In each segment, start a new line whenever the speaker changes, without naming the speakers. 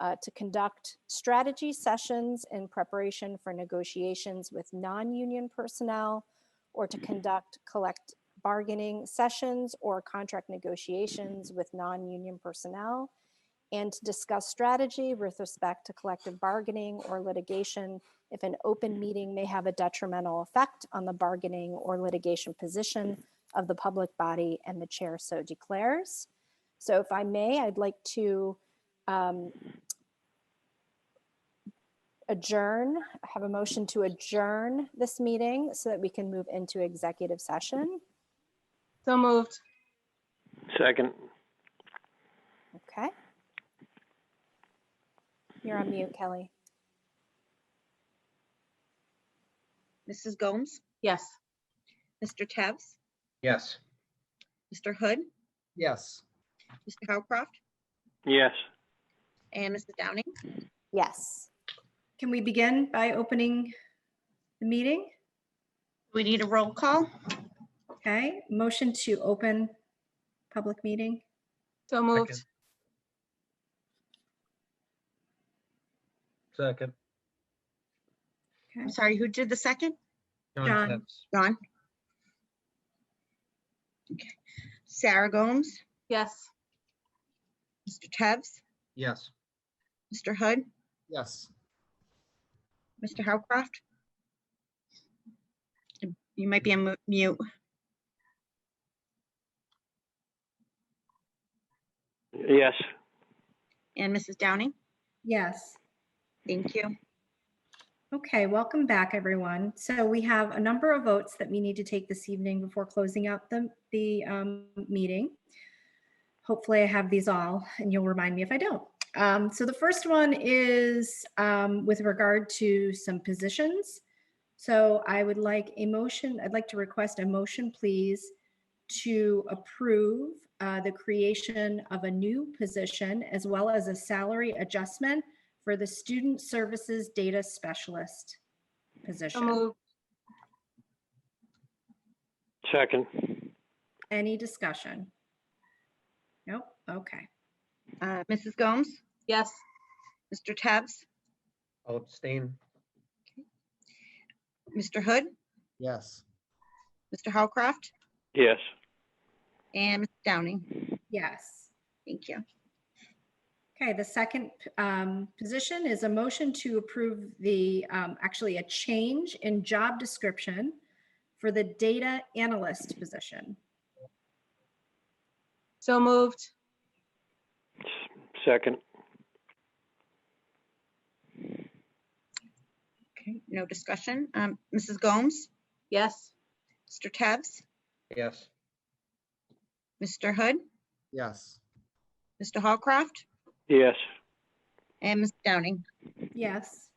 uh, to conduct strategy sessions in preparation for negotiations with non-union personnel or to conduct collect bargaining sessions or contract negotiations with non-union personnel and to discuss strategy with respect to collective bargaining or litigation if an open meeting may have a detrimental effect on the bargaining or litigation position of the public body and the chair so declares. So if I may, I'd like to um, adjourn, have a motion to adjourn this meeting so that we can move into executive session.
So moved.
Second.
Okay. You're on mute, Kelly.
Mrs. Gomes,
Yes.
Mr. Tevz,
Yes.
Mr. Hood,
Yes.
Mr. Howcroft,
Yes.
and Mrs. Downing.
Yes.
Can we begin by opening the meeting?
We need a roll call.
Okay, motion to open public meeting.
So moved.
Second.
I'm sorry, who did the second?
John.
Tibbs.
Don. Okay. Sarah Gomes,
Yes.
Mr. Tevz,
Yes.
Mr. Hood,
Yes.
Mr. Howcroft. You might be on mu- mute.
Yes.
And Mrs. Downing,
Yes.
thank you.
Okay, welcome back, everyone. So we have a number of votes that we need to take this evening before closing out the, the um, meeting. Hopefully I have these all and you'll remind me if I don't. Um, So the first one is um, with regard to some positions. So I would like a motion, I'd like to request a motion, please, to approve uh, the creation of a new position as well as a salary adjustment for the Student Services Data Specialist
So
position.
moved.
Second.
Any discussion? Nope, okay.
Uh, Mrs. Gomes,
Yes.
Mr. Tevz,
I'll abstain.
Mr. Hood,
Yes.
Mr. Howcroft,
Yes.
and Mrs. Downing.
Yes.
Thank you.
Okay, the second um, position is a motion to approve the, um, actually a change in job description for the data analyst position.
So moved.
Second.
Okay, no discussion. Um, Mrs. Gomes,
Yes.
Mr. Tevz,
Yes.
Mr. Hood,
Yes.
Mr. Howcroft,
Yes.
and Ms. Downing.
Yes.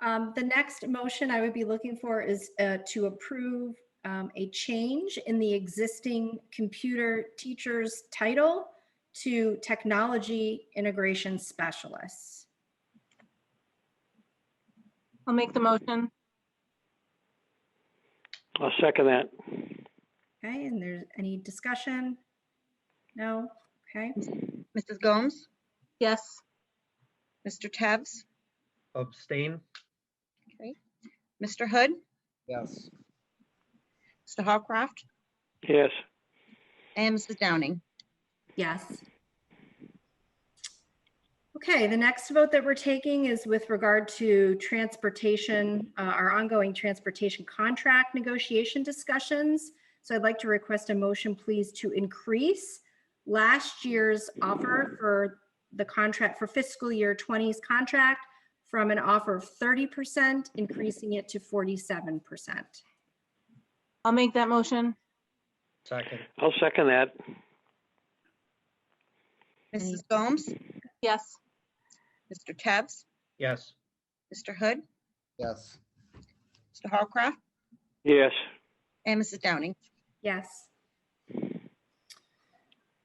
Um, The next motion I would be looking for is uh, to approve um, a change in the existing computer teacher's title to technology integration specialists.
I'll make the motion.
I'll second that.
Okay, and there's any discussion? No? Okay,
Mrs. Gomes,
Yes.
Mr. Tevz,
Abstain.
Mr. Hood,
Yes.
Mr. Howcroft,
Yes.
and Mrs. Downing.
yes. Okay, the next vote that we're taking is with regard to transportation, uh, our ongoing transportation contract negotiation discussions. So I'd like to request a motion, please, to increase last year's offer for the contract for fiscal year 20's contract from an offer of 30%, increasing it to 47%.
I'll make that motion.
Second.
I'll second that.
Mrs. Gomes,
Yes.
Mr. Tevz,
Yes.
Mr. Hood,
Yes.
Mr. Howcroft,
Yes.
and Mrs. Downing.
Yes.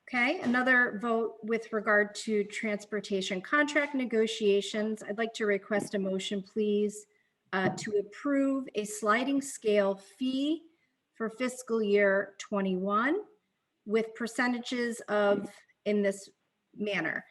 Okay, another vote with regard to transportation contract negotiations. I'd like to request a motion, please, uh, to approve a sliding scale fee for fiscal year 21 with percentages of, in this manner,